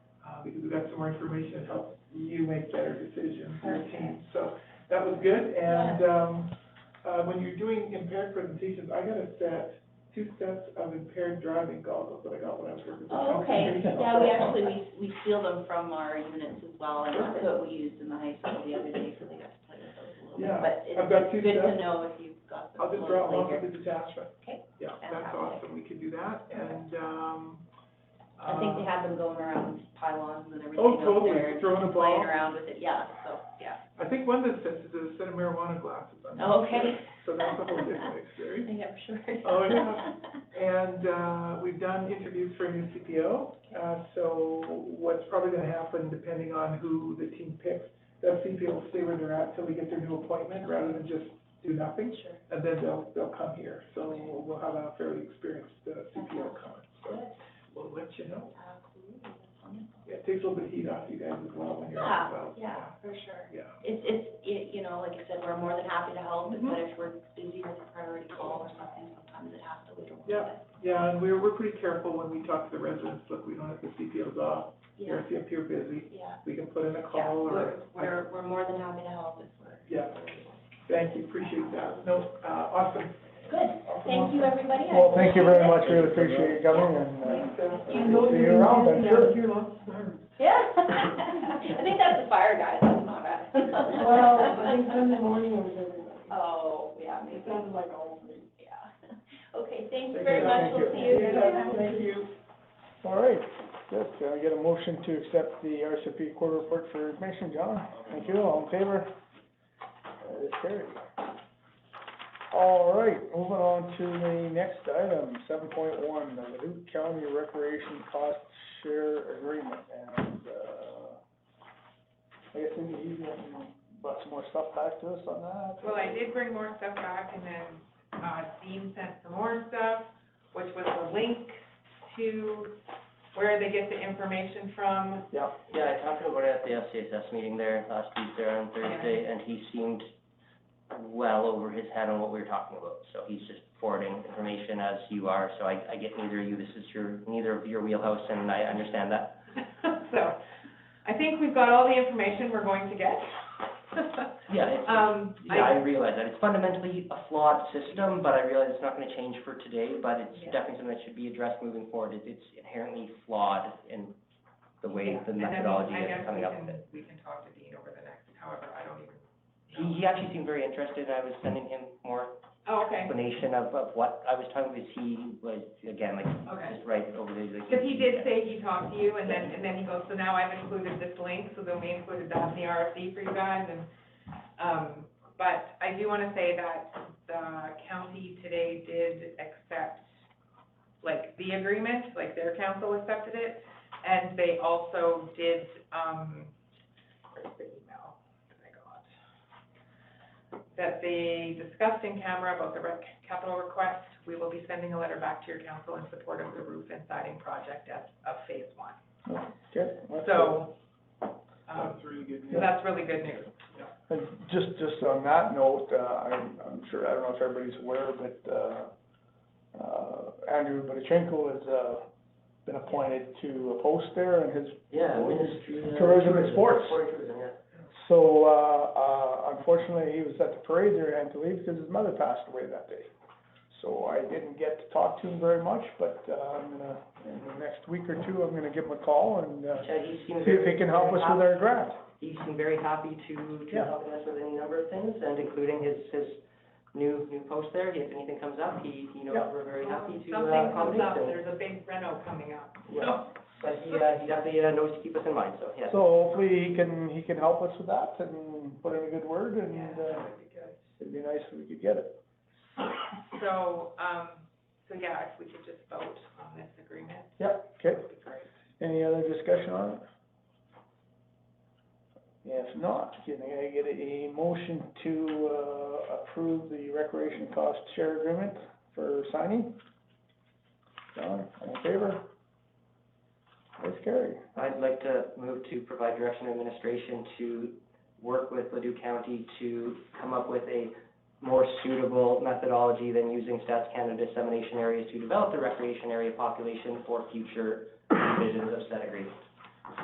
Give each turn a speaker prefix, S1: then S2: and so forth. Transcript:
S1: we uh, got some more information that helps you make better decisions, your team. So that was good, and, um, uh, when you're doing impaired presentations, I got a set, two sets of impaired driving goggles that I got when I was working. for
S2: Oh, okay,
S1: Comcast.
S2: yeah, we actually, we, we steal them from our units as well, and that's what we used in the high school the other day, so they got to play with those a little
S1: Yeah,
S2: bit. But it's
S1: I've got two
S2: good to
S1: sets.
S2: know if you've got them
S1: I'll just draw one
S2: locally
S1: for
S2: here.
S1: the detachment.
S2: Okay.
S1: Yeah, that's
S2: Fantastic.
S1: awesome, we can do that, and, um.
S2: I think they
S1: uh,
S2: had them going around pylons and everything
S1: Oh,
S2: up
S1: totally,
S2: there, and
S1: throwing a ball.
S2: playing around with it, yeah, so, yeah.
S1: I think one of the sets is a set of marijuana glasses. I'm not
S2: Oh, okay.
S1: sure. So that's a whole different experience.
S2: Yeah, for sure.
S1: Oh, yeah. And, uh, we've done interviews for a new CPO, uh, so what's probably gonna happen, depending on who the team picks, that CPO will stay where they're at till they get their new appointment, rather than just do nothing,
S2: Sure.
S1: and then they'll, they'll come here. So we'll, we'll have a fairly experienced uh, CPO coming, so we'll let you know.
S2: Absolutely, that's wonderful.
S1: Yeah, it takes a little bit of heat off you guys as well when you're
S2: Yeah,
S1: out and about.
S2: yeah, for sure.
S1: Yeah.
S2: It's, it's, it, you know, like I said, we're more than happy to help,
S1: Mhm.
S2: but if we're busy with a priority call or something, sometimes it has to wait a little
S1: Yeah.
S2: bit.
S1: Yeah, and we're, we're pretty careful when we talk to the residents, look, we don't have the CPOs off,
S2: Yeah,
S1: you're, if you're busy,
S2: yeah,
S1: we can put in a
S2: yeah,
S1: call
S2: we're,
S1: or.
S2: we're, we're more than happy to help if we're.
S1: Yeah, thank you, appreciate that, no, uh, awesome.
S2: Good, thank you, everybody. I
S3: Well, thank you very much,
S2: appreciate
S3: really appreciate you coming, and, uh,
S2: You-
S3: see you around, I'm sure.
S2: it. Yeah. I think that's the fire guys, that's not us.
S4: Well, I think Sunday morning was everybody.
S2: Oh, yeah, maybe,
S4: It sounded like all three.
S2: yeah. Okay, thank
S1: Thank
S2: you very
S1: you.
S2: much,
S3: Thank
S2: we'll
S3: you.
S2: see you.
S1: Thank you.
S3: all right. Yes, can I get a motion to accept the RCP quarter report for information, John? Thank you, all in favor? That is carried. All right, moving on to the next item, seven point one, the Duke County Recreation Cost Share Agreement, and, uh, I guess we need to brought some more stuff back to us on that.
S5: Well, I did bring more stuff back, and then, uh, Dean sent some more stuff, which was a link to where they get the information from.
S3: Yeah.
S6: Yeah, I talked about it at the FCSS meeting there last Tuesday on Thursday, and he seemed well over his head on what we were talking about. So he's just forwarding information as you are, so I, I get neither of you, this is your, neither of your wheelhouse, and I understand that.
S5: So, I think we've got all the information we're going to get.
S6: Yeah, it's,
S5: Um,
S6: yeah,
S5: I,
S6: I realize that, it's fundamentally a flawed system, but I realize it's not gonna change for today, but it's
S5: Yeah.
S6: definitely something that should be addressed moving forward. It- It's inherently flawed in the way,
S5: Yeah,
S6: the
S5: and then
S6: methodology
S5: I guess
S6: is coming
S5: we
S6: up
S5: can-
S6: with it.
S5: We can talk to Dean over the next, however, I don't even.
S6: He, he actually seemed very interested, and I was sending him more
S5: Oh, okay,
S6: explanation of, of what I was talking about, is he was, again, like,
S5: okay.
S6: just right over there, like.
S5: Because he did say he talked to you, and then, and then he goes, so now I've included this link, so then we included that in the RFP for you guys, and, um, but I do wanna say that the county today did accept, like, the agreement, like, their council accepted it, and they also did, um, where's the email that I got? That they discussed in camera about the rec, capital request, we will be sending a letter back to your council in support of the roof and siding project as, of phase one.
S3: Okay, that's good.
S5: So, um,
S1: That's really good
S5: so
S1: news.
S5: that's really good news.
S3: And just, just on that note, uh, I'm, I'm sure, I don't know if everybody's aware, but, uh, uh, Andrew Bodachenko has, uh, been appointed to a post there and his,
S6: Yeah,
S3: Well,
S6: Ministry of.
S3: tourism and sports.
S6: Sport and tourism, yeah.
S3: so, uh, uh, unfortunately, he was at the parade there and had to leave because his mother passed away that day. So I didn't get to talk to him very much, but, uh, I'm gonna, in the next week or two, I'm gonna give him a call and, uh,
S6: Yeah, he seemed
S3: see if he can help us with our grant.
S6: He seemed very happy to, to
S3: Yeah.
S6: helping us with any number of things, and including his, his new, new post there, if anything comes up, he, you know,
S3: Yeah.
S6: we're very happy to uh,
S5: Um, Something comes
S6: accommodate
S5: up,
S6: him.
S5: there's a big reno coming up.
S6: Yeah, but he, uh, he definitely uh, knows to keep us in mind, so, yeah.
S3: So hopefully he can, he can help us with that and put in a good word and,
S5: Yeah,
S3: uh,
S5: that would be good.
S3: it'd be nice if we could get it.
S5: So, um, so yeah, if we could just vote on this agreement,
S3: Yep, okay.
S5: that would be great.
S3: Any other discussion on it? If not, can I get a motion to, uh, approve the recreation cost share agreement for signing? John, all in favor? That's carried.
S6: I'd like to move to provide direction to administration to work with Ladue County to come up with a more suitable methodology than using Stats Canada dissemination areas to develop the recreation area population for future revisions of said agreement.